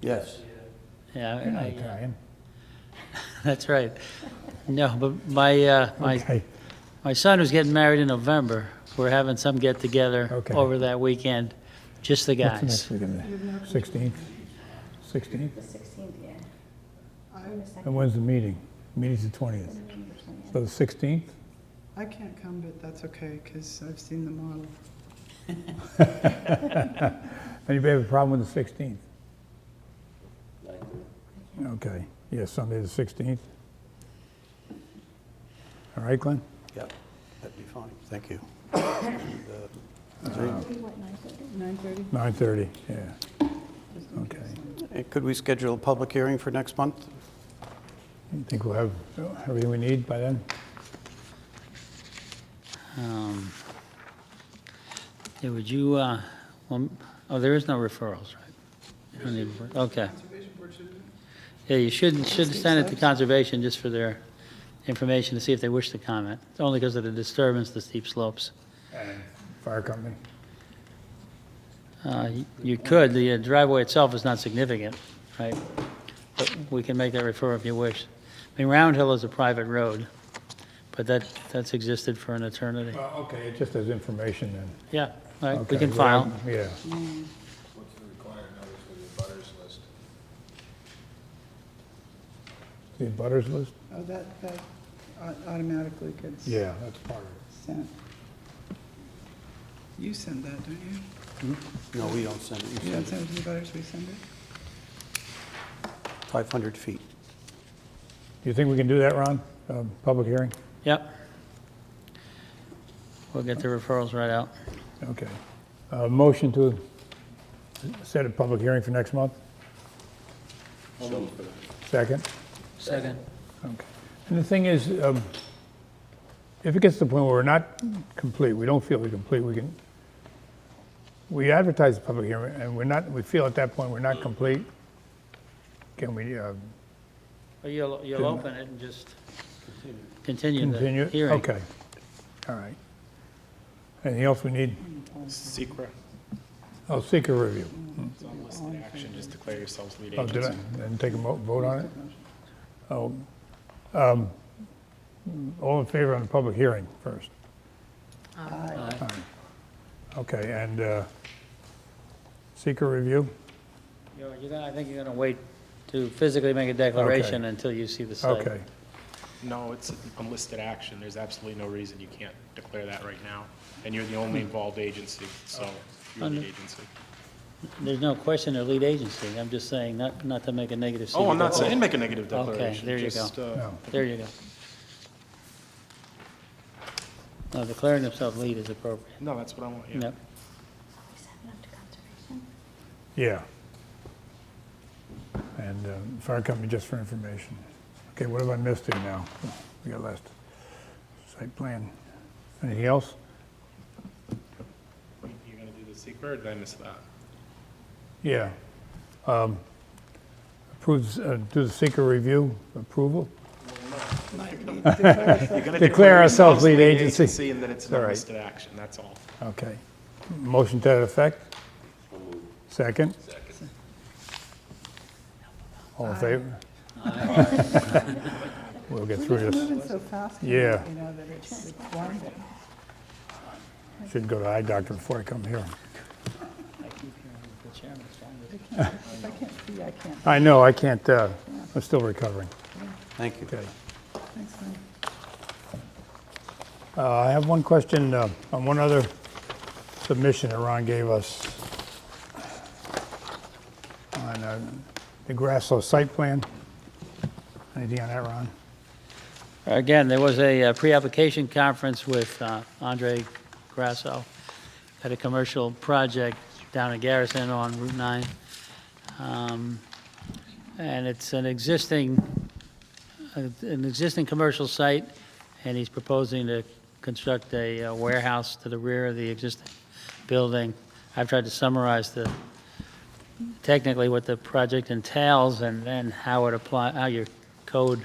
Yes. Yeah, You're not I- Italian. that's right. No, but my, uh, my Okay, My son was getting married in November. We're having some get together Okay. over that weekend, just the what's the guys. next weekend? Sixteenth? Sixteenth? The sixteenth, yeah. Or the Oh. And second, when's the meeting? Meeting's the twentieth. or something, So the sixteenth? I can't come, but that's okay, because I've seen the model. Anybody have a problem with the sixteenth? Like, Okay, yeah, Sunday the sixteenth. All right, Glenn? Yep, that'd be fine, thank you. yeah. Maybe what, nine thirty? 9:30? Nine thirty, yeah. Just in Okay. case. And Could we schedule a public hearing for next month? You think we'll have everything we need by then? Um, yeah, would you, uh, well, oh, there is no referrals, right? You don't need refer- Okay. Conservation Board should- Yeah, you should, should send it to conservation just for their information to see if they wish to comment. It's only because of the disturbance, the steep slopes. Uh, Fire company? Uh, y- You could, the uh, driveway itself is not significant, right? But we can make that referral if you wish. I mean, Round Hill is a private road, but that, that's existed for an eternity. Well, okay, just as information then. Yeah, all right, we Okay, can file. well, Yeah, What's the required notice for the butters list? the butters list? Oh, that, that au- automatically gets Yeah, that's part of it. sent. You send that, don't you? No, we don't send it, You you don't send send it it to the butters, we send it? 500 feet. Do you think we can do that, Ron? Um, Public hearing? Yep. We'll get the referrals right out. Okay. Uh, Motion to set a public hearing for next month? Second? Second. Okay. And the thing is, um, if it gets to the point where we're not complete, we don't feel we're complete, we can, we advertise the public hearing, and we're not, we feel at that point we're not complete, can we um, You'll, you'll open it and just continue the continue? hearing. it? Okay, all right. Anything else we need? Secra, Oh, seeker review. it's on list Oh, in action, just declare yourselves lead Oh, did agents. I, and take a mo- vote on it? Oh, um, all in favor on the public hearing first? Aye. Okay, and, uh, seeker review? You're- you're gonna- I think you're going to wait to physically make a declaration until you see the site. Okay, No, it's unlisted action, there's absolutely no reason you can't declare that right now, and you're the Hmm. only involved agency, so you're the Under- agency. There's no question of lead agency. I'm just saying, not, not to make a negative. Oh, I'm not CBO. saying make a negative Okay, declaration. there you go. just, uh, no, There you go. No, declaring themselves lead is appropriate. No, that's what I want, yeah. Yep. We send it up to conservation. yeah. And, uh, fire company just for information. Okay, what have I missed here now? We got last, site plan. Anything else? You're gonna do the secret, or did I miss that? Yeah. Um, Approves, uh, do the seeker review approval? You're gonna Declare ourselves lead agency. And then it's an All right. unlisted action, that's all. Okay. Motion to that effect? Second? Second. All in favor? We'll get We're through just this. moving so fast. now, Yeah. You know, that it's it's warm. Should go to eye doctor before I come here. If I can't see, I can't. I know, I can't, uh, I'm still recovering. Thank you. Okay. Thanks, Lynn. Uh, I have one question uh, on one other submission that Ron gave us on uh, the Grasslow site plan. Anything on that, Ron? Again, there was a uh, pre-application conference with uh, Andre Grasso at a commercial project down in Garrison on Route 9. Um, And it's an existing, uh, an existing commercial site, and he's proposing to construct a uh, warehouse to the rear of the existing building. I've tried to summarize the, technically what the project entails and then how it apply, how your code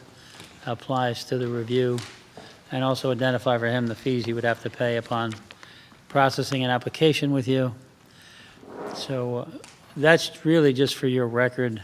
applies to the review, and also identify for him the fees he would have to pay upon processing an application with you. So uh, that's really just for your record.